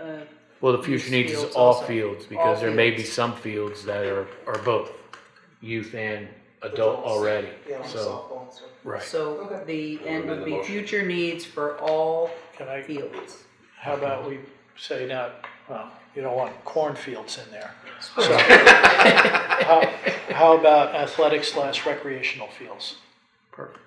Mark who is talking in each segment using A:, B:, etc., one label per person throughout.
A: uh,
B: Well, the future
A: Youth
B: needs is
A: fields
B: all
A: also.
B: fields,
A: All
B: because there may be
A: fields.
B: some fields that are, are both youth and adult
C: Adults.
B: already,
C: Yeah, like
B: so,
C: softball and stuff.
B: right.
A: so
C: Okay.
A: the end would
D: Amend the
A: be
D: motion.
A: future needs for all
E: Can I,
A: fields.
E: how about we say not, well, you don't want cornfields in there. So, how, how about athletic slash recreational fields?
B: Perfect.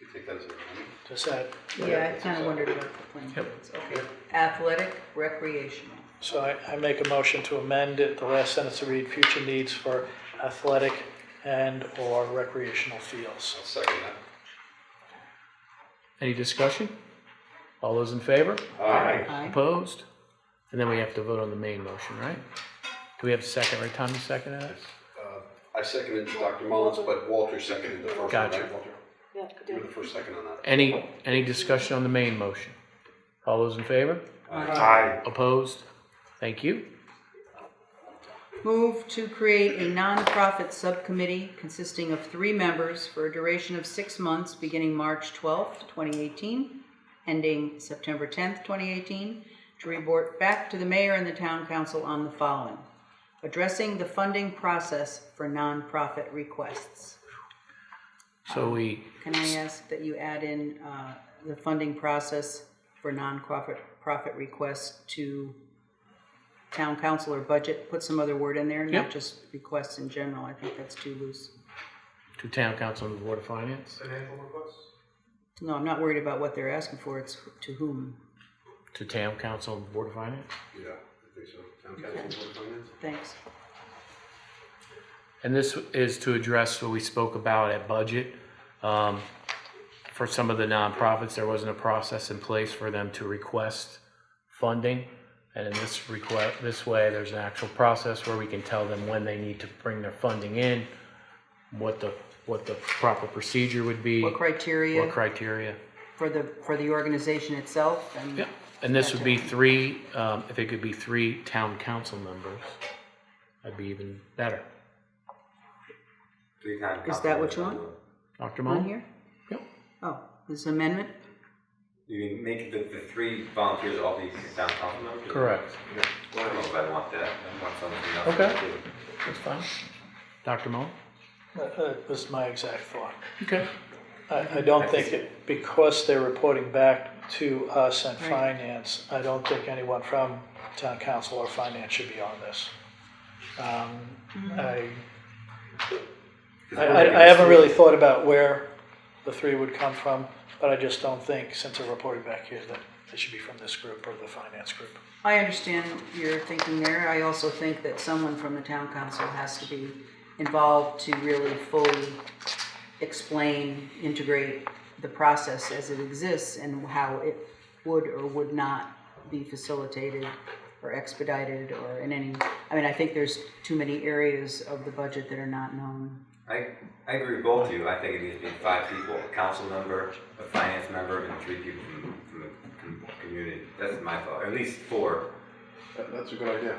D: You take that as a,
E: Does that,
A: Yeah, I kinda wondered about the playing fields, okay. Athletic, recreational.
E: so I, I make a motion to amend it, the last sentence to read, future needs for athletic and/or recreational fields.
D: I'll second that.
B: Any discussion? All those in favor?
D: Aye.
A: Aye.
B: Opposed? And then we have to vote on the main motion, right? Do we have a second, right, Tommy, second it?
D: Uh, I seconded Dr. Mullins, but Walter seconded the first one,
B: Gotcha.
D: right, Walter? You were the first second on that.
B: Any, any discussion on the main motion? All those in favor?
D: Aye.
B: Opposed? Thank you.
A: Move to create a nonprofit subcommittee consisting of three members for a duration of six months, beginning March 12th, 2018, ending September 10th, 2018, to report back to the mayor and the town council on the following. Addressing the funding process for nonprofit requests.
B: So we,
A: Can I ask that you add in uh, the funding process for nonprofit profit requests to town council or budget? Put some other word in there,
B: Yep.
A: not just requests in general. I think that's too loose.
B: to town council and the board of finance,
D: Financial requests?
A: No, I'm not worried about what they're asking for. It's to whom.
B: to town council and the board of finance.
D: Yeah, I think so. Town council, board of finance?
A: Thanks.
B: And this is to address what we spoke about at budget. Um, For some of the nonprofits, there wasn't a process in place for them to request funding. And in this request, this way, there's an actual process where we can tell them when they need to bring their funding in, what the, what the proper procedure would be,
A: What
B: what
A: criteria
B: criteria.
A: for the, for the organization itself and
B: Yeah, and this would be three, um, if it could be three town council members, that'd be even better.
D: Three times.
A: Is that what you want?
B: Dr.
A: on
B: Mullin?
A: here?
B: Yep.
A: Oh, this amendment?
F: You mean make the, the three volunteers all be town council members?
B: Correct.
F: Yeah. I don't know if I want that, I want something else.
B: Okay. That's fine. Dr. Mullin?
E: That that was my exact thought.
B: Okay.
E: I, I don't think it, because they're reporting back to us and
A: Right.
E: finance, I don't think anyone from town council or finance should be on this. Um, I, I, I I haven't really thought about where the three would come from, but I just don't think, since they're reporting back here, that they should be from this group or the finance group.
A: I understand your thinking there. I also think that someone from the town council has to be involved to really fully explain, integrate the process as it exists and how it would or would not be facilitated or expedited or in any, I mean, I think there's too many areas of the budget that are not known.
F: I, I agree with both of you, I think it needs to be five people, a council member, a finance member, and three people from, from the com- community, that's my thought, or at least four.
D: That, that's a good idea.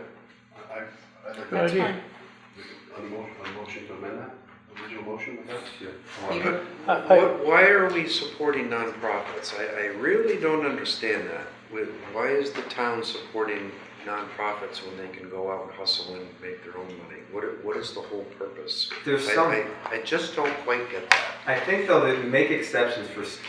D: I, I- I'd like
B: Good
D: to,
B: idea.
D: on the motion, on the motion to amend that, original motion with that?
F: Yeah, I want-
A: Peter?
E: I- I-
G: What, why are we supporting nonprofits? I, I really don't understand that. Wh- Why is the town supporting nonprofits when they can go out and hustle and make their own money? What, i- what is the whole purpose?
F: There's
G: I-
F: some-
G: I, I just don't quite get that.
F: I think though that we make exceptions for s-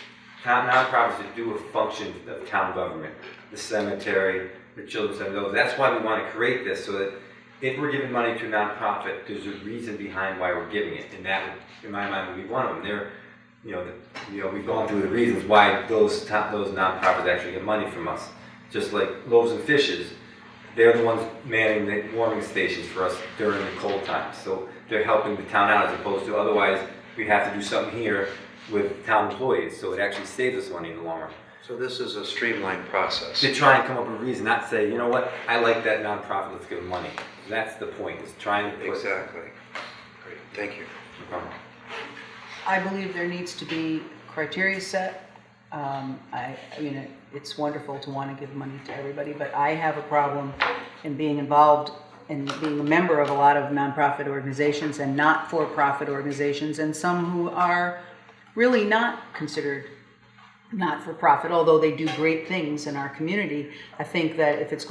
F: town nonprofits that do a function of town government, the cemetery, the children's center, those. That's why we want to create this so that if we're giving money to a nonprofit, there's a reason behind why we're giving it, and that, would- in my mind, would be one of them. There, you know, the, you know, we've gone through the reasons why those top, those nonprofits actually get money from us. Just like loaves and fishes, they're the ones manning the warming stations for us during the cold times. So they're helping the town out as opposed to otherwise we have to do something here with town employees. So it actually saves us money in the long run.
G: So this is a streamlined process.
F: To try and come up with a reason, not say, you know what, I like that nonprofit, let's give them money. That's the point, is trying to put.
G: Exactly. Great, thank you.
A: I believe there needs to be criteria set. Um, I, I mean, it, it's wonderful to want to give money to everybody, but I have a problem in being involved and being a member of a lot of nonprofit organizations and not for profit organizations, and some who are really not considered not for profit, although they do great things in our community. I think that if it's